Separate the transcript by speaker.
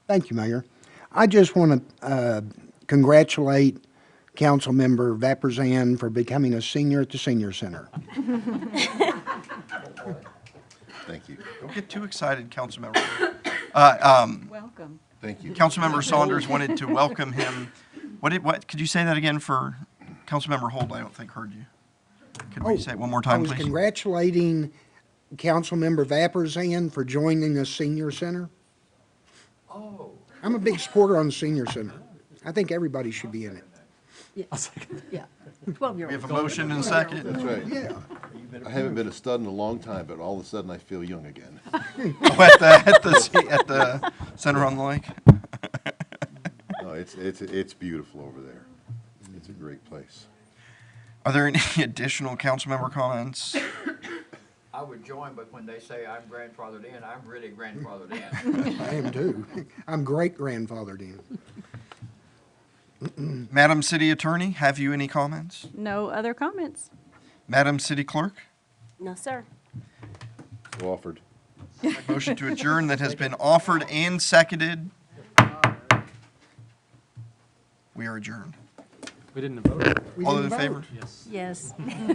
Speaker 1: Thank you, Mayor. I just want to congratulate Councilmember Vapurzian for becoming a senior at the senior center.
Speaker 2: Thank you.
Speaker 3: Don't get too excited, Councilmember. Uh, um,
Speaker 4: Welcome.
Speaker 2: Thank you.
Speaker 3: Councilmember Saunders wanted to welcome him. What did, what, could you say that again for Councilmember Hold? I don't think heard you. Could we say it one more
Speaker 1: Oh, I
Speaker 3: time,
Speaker 1: was
Speaker 3: please?
Speaker 1: congratulating Councilmember Vapurzian for joining the senior center. Oh. I'm a big supporter on the senior center. I think everybody should be in it.
Speaker 4: Yeah.
Speaker 3: We have a
Speaker 4: Twelve-year-old.
Speaker 3: motion and a second.
Speaker 2: That's right.
Speaker 1: Yeah.
Speaker 2: I haven't been a stud in a long time, but all of a sudden I feel young again.
Speaker 3: Oh, At the, at the, at the Center on the Lake.
Speaker 2: No, it's, it's, it's beautiful over there. It's a great place.
Speaker 3: Are there any additional councilmember comments?
Speaker 5: I would join, but when they say I'm grandfathered in, I'm really grandfathered in.
Speaker 1: I am too. I'm great grandfathered in.
Speaker 3: Madam City Attorney, have you any comments?
Speaker 4: No other comments?
Speaker 3: Madam City Clerk?
Speaker 4: No, sir.
Speaker 2: So Offered.
Speaker 3: Motion to adjourn that has been offered and seconded. We are adjourned.
Speaker 6: We didn't vote.
Speaker 1: We
Speaker 3: All those
Speaker 1: didn't
Speaker 3: in
Speaker 1: vote.
Speaker 3: favor?
Speaker 6: Yes.
Speaker 4: Yes.